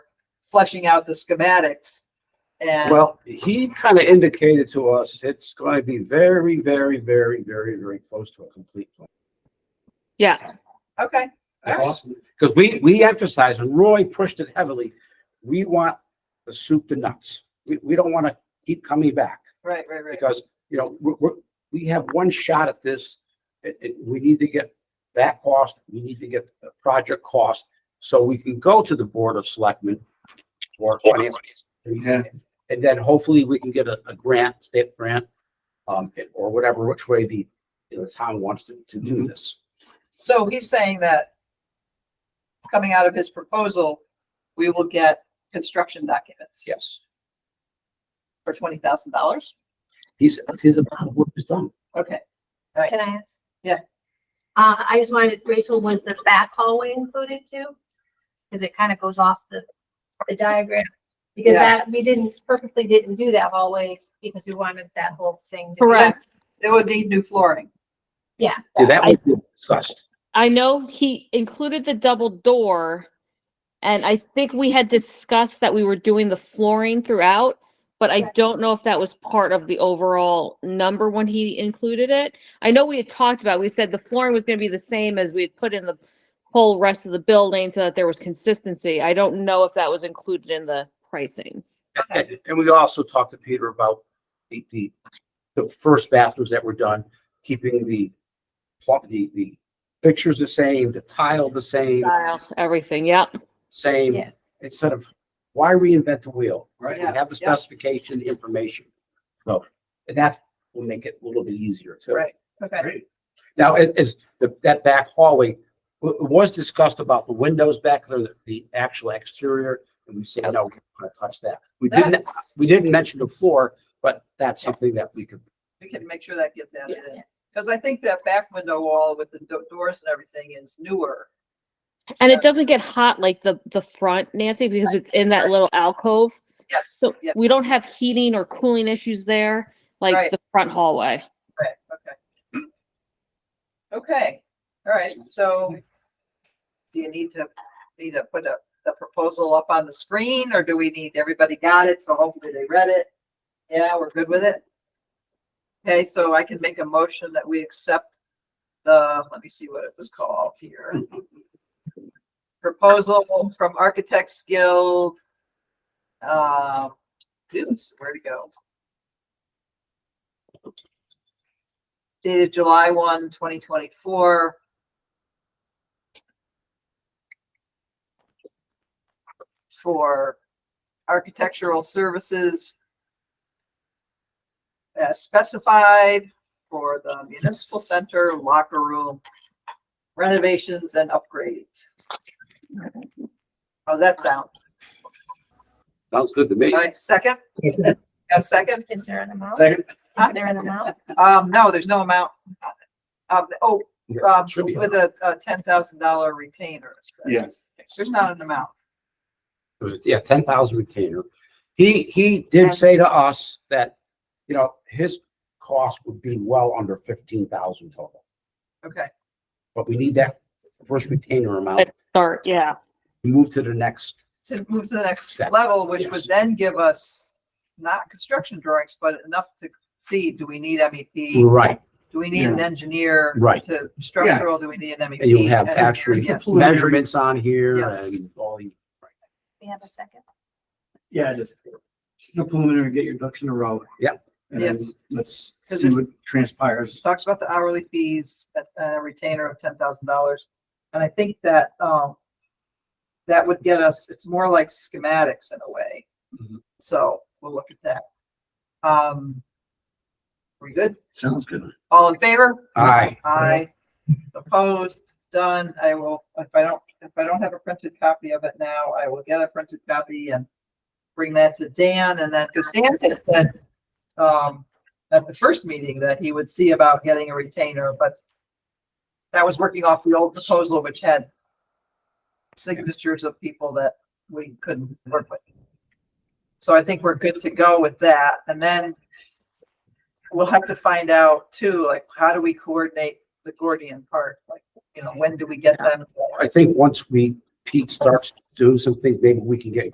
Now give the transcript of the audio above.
fleshing out the schematics. And Well, he kind of indicated to us, it's going to be very, very, very, very, very close to a complete plan. Yeah, okay, all right. Because we, we emphasized, and Roy pushed it heavily, we want the soup to nuts. We, we don't want to keep coming back right, right, right. because, you know, we're, we're, we have one shot at this. It, it, we need to get that cost, we need to get the project cost, so we can go to the Board of Selectmen or finance. Yeah. And then hopefully we can get a, a grant, state grant, um, or whatever, which way the, the town wants to, to do this. So he's saying that coming out of his proposal, we will get construction documents Yes. for twenty thousand dollars? He's, he's about what he's done. Okay, Can I ask? Yeah. Uh, I just wanted, Rachel, was the back hallway included too? Cause it kind of goes off the, the diagram. Because Yeah. that, we didn't, purposely didn't do that hallway because we wanted that whole thing. to- Correct. it would need new flooring. Yeah, Yeah, that was discussed. I know he included the double door. And I think we had discussed that we were doing the flooring throughout, but I Right. don't know if that was part of the overall number when he included it. I know we had talked about, we said the flooring was gonna be the same as we had put in the whole rest of the building so that there was consistency. I don't know if that was included in the pricing. And, and we also talked to Peter about the, the, the first bathrooms that were done, keeping the plumb, the, the pictures the same, the tile the same, Style, Everything, yep. same, Yeah. instead of, why reinvent the wheel? Right. We have the Yeah. specification, the information. So, and that will make it a little bit easier too. Right. Okay, Now, is, is the, that back hallway, w- it was discussed about the windows back there, the- the actual exterior, and we said, no, we're not gonna touch that. We didn't, That's- we didn't mention the floor, but that's something that we could, we can make sure that gets added Yeah. in. Because I think that back window wall with the do- doors and everything is newer. And it doesn't get hot like the, the front, Nancy, because it's in that little alcove. Yes, So yeah, we don't have heating or cooling issues there, Right. like the front hallway. right, okay. Okay, all right, so do you need to, need to put a, the proposal up on the screen or do we need, everybody got it, so hopefully they read it? Yeah, we're good with it? Okay, so I can make a motion that we accept the, let me see what it was called here. Proposal from Architects Guild. Uh, oops, where'd it go? dated July 1, 2024. For architectural services as specified for the municipal center locker room renovations and upgrades. How's that sound? sounds good to me. All right, second? Got a second? Is there an amount? Second. Is there an amount? Um, no, there's no amount. Um, oh, um, Should be. with a, a ten thousand dollar retainer. Yes. There's not an amount. It was, yeah, ten thousand retainer. He, he did say to us that, you know, his cost would be well under fifteen thousand total, Okay, but we need that first retainer amount, But- Start, yeah. to move to the next to move to the next Step. level, which would Yes. then give us not construction drawings, but enough to see, do we need MEP? Right, Do we need an engineer? Right. To structural, do we need an MEP? and you'll have And- actually yes. measurements on here Yes. and all the. We have a second. Yeah, just just the preliminary, get your ducks in a row. Yep. And then Yes. let's Because see it- what transpires. Talks about the hourly fees, a retainer of ten thousand dollars. And I think that, um, that would get us, it's more like schematics in a way. Mhm. So we'll look at that. Um, we good? Sounds good. All in favor? Aye. Aye. Opposed, done. I will, if I don't, if I don't have a printed copy of it now, I will get a printed copy and bring that to Dan and then, because Dan had said, um, at the first meeting that he would see about getting a retainer, but that was working off the old proposal, which had signatures of people that we couldn't work with. So I think we're good to go with that. And then we'll have to find out too, like, how do we coordinate the Gordian part? Like, you know, when do we get them? I think once we, Pete starts doing some things, maybe we can get